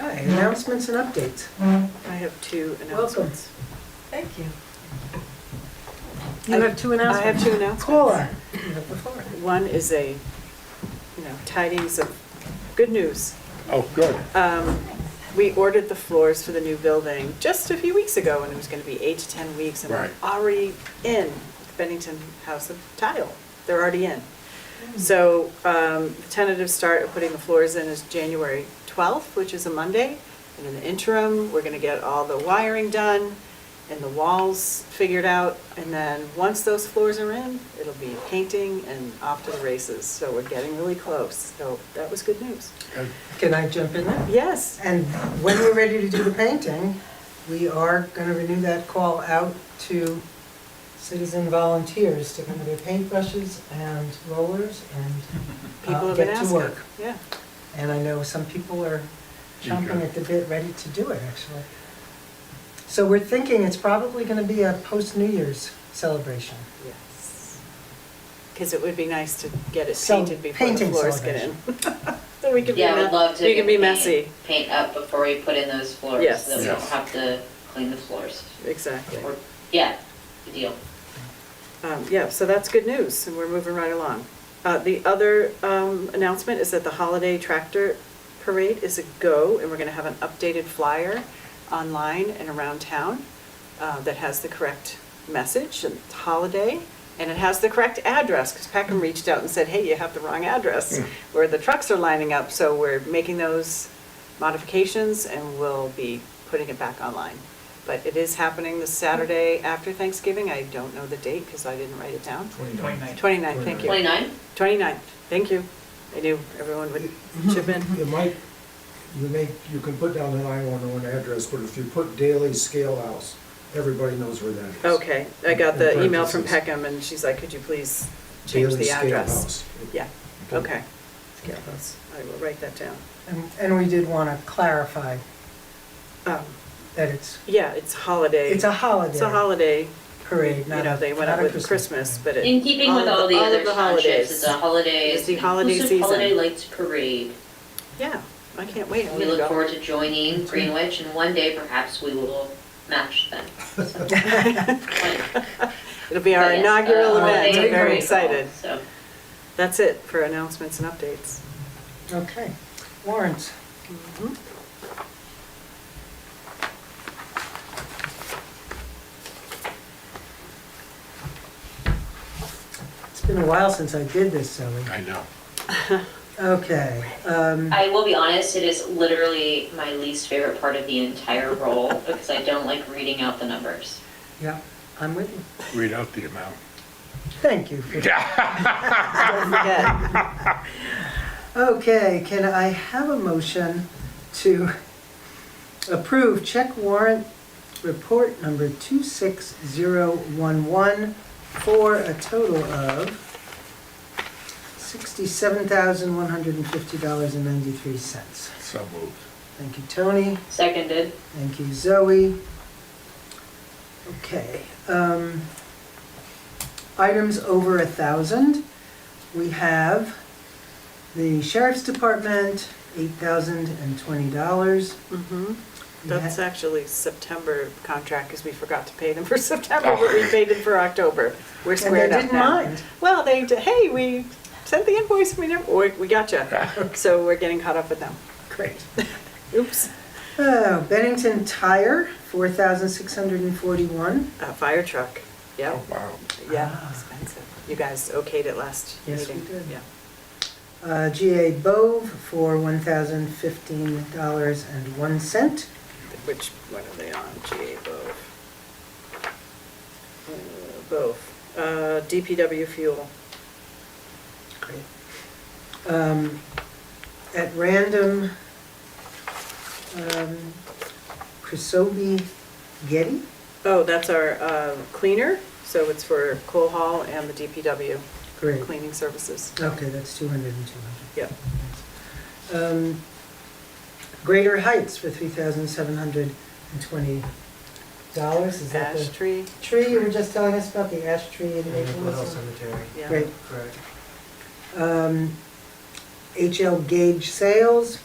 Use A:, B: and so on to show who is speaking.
A: Okay, announcements and updates.
B: I have two
A: Welcome.
B: announcements.
C: Thank you.
A: You have two
B: I have
A: announcements.
B: two announcements.
A: Caller, you have the floor.
B: One is a, you know, tidings of good news.
D: Oh, good.
B: Um, We ordered the floors for the new building just a few weeks ago, and it was going to be eight to 10 weeks, and we're
D: Right.
B: already in the Bennington House of Tile. They're already in. So um, the tentative start of putting the floors in is January 12th, which is a Monday. And in the interim, we're going to get all the wiring done and the walls figured out. And then, once those floors are in, it'll be painting and off to the races. So we're getting really close. So that was good news.
D: Good.
A: Can I jump in there?
B: Yes.
A: And when we're ready to do the painting, we are going to renew that call out to citizen volunteers to come with their paintbrushes and rollers and
B: People
A: uh,
B: have been
A: get to
B: asking.
A: work.
B: Yeah.
A: And I know some people are chomping
D: Eager.
A: at the bit, ready to do it, actually. So we're thinking it's probably going to be a post-New Year's celebration.
B: Yes. Because it would be nice to get it
A: So,
B: painted before the
A: painting
B: floors get in. So we could be,
E: Yeah, I would
B: me-
E: love to.
B: we could be
E: get
B: messy.
E: paint- Paint up before we put in those floors.
B: Yes.
E: So that we don't
D: Yes.
E: have to clean the floors.
B: Exactly.
E: Or- Yeah, good deal.
B: Um, Yeah, so that's good news, and we're moving right along. Uh, The other um, announcement is that the holiday tractor parade is a go, and we're going to have an updated flyer online and around town uh, that has the correct message and it's holiday, and it has the correct address, because Peckham reached out and said, hey, you have the wrong address, where the trucks are lining up, so we're making those modifications, and we'll be putting it back online. But it is happening this Saturday after Thanksgiving. I don't know the date because I didn't write it down.
F: 29.
B: 29th, thank you.
E: 29?
B: 29th, thank you. I knew everyone would chip in.
F: You might, you may, you can put down the 911 address, but if you put Daily Scale House, everybody knows where that is.
B: Okay, I got the
F: In
B: email from
F: parentheses.
B: Peckham and she's like, could you please change
F: Daily
B: the
F: Scale
B: address?
F: House.
B: Yeah, okay. Scale House. I will write that down.
A: And- And we did want to clarify
B: Um,
A: that it's,
B: Yeah, it's holiday.
A: it's a holiday.
B: It's a holiday.
A: Parade,
B: You
A: not
B: know,
A: a-
B: they went
A: not
B: up
A: a
B: with
A: Christmas
B: Christmas, but it.
E: In keeping with all the
B: of
E: other
B: the
E: townships, it's a
B: holidays.
E: holiday.
B: It's the holiday
E: inclusive
B: season.
E: Holiday Lights Parade.
B: Yeah, I can't wait. I'm
E: We
B: gonna
E: look
B: go.
E: forward to joining Greenwich and one day perhaps we will match them. So, fun.
B: It'll be our
E: But yes,
B: inaugural
E: uh,
B: event.
E: holiday
B: I'm very
E: parade.
B: excited.
E: So,
B: That's it for announcements and updates.
A: Okay, Mm-hmm. warrants. It's been a while since I did this, Sally.
D: I know.
A: Okay, um,
E: I will be honest, it is literally my least favorite part of the entire role because I don't like reading out the numbers.
A: yeah, I'm with you.
D: Read out the amount.
A: Thank you for
B: Don't forget.
A: Okay, can I have a motion to approve check warrant report number 26011 for a total of $67,150.93?
D: So moved.
A: Thank you, Tony.
E: Seconded.
A: Thank you, Zoe. Okay. um, Items over a 1,000. We have the Sheriff's Department, $8,020.
B: Mhm.
A: We
B: That's
A: ha-
B: actually September contract, because we forgot to pay them for September, but we paid them for October. We're
A: And they
B: squared up
A: didn't
B: now.
A: mind.
B: Well, they, d- hey, we sent the invoice, we never, we we gotcha. So we're getting caught up with them.
A: Great.
B: Oops.
A: Oh, Bennington Tire, $4,641.
B: Uh, Fire truck, yeah,
D: Oh, wow.
B: yeah,
A: Ah.
B: expensive. You guys okayed it last meeting?
A: Yes, we did.
B: Yeah.
A: Uh, GA Bove for $1,015.01.
B: Which, what are they on, GA Bove? Uh, Bove, Uh, DPW fuel.
A: Great. Um, At random, um, Chrysobe Getty?
B: Oh, that's our uh, cleaner, so it's for Cole Hall and the DPW
A: Great.
B: cleaning services.
A: Okay, that's 200 and 200.
B: Yep.
A: Um, Greater Heights for $3,720. Is that
B: Ash
A: the
B: tree,
A: tree you were just telling us about, the
F: Mm-hmm.
A: ash tree in
F: And Maplewood
A: Maplewood?
F: Cemetery.
B: yeah.
A: Great.
F: Correct.
A: Um, HL Gage Sales,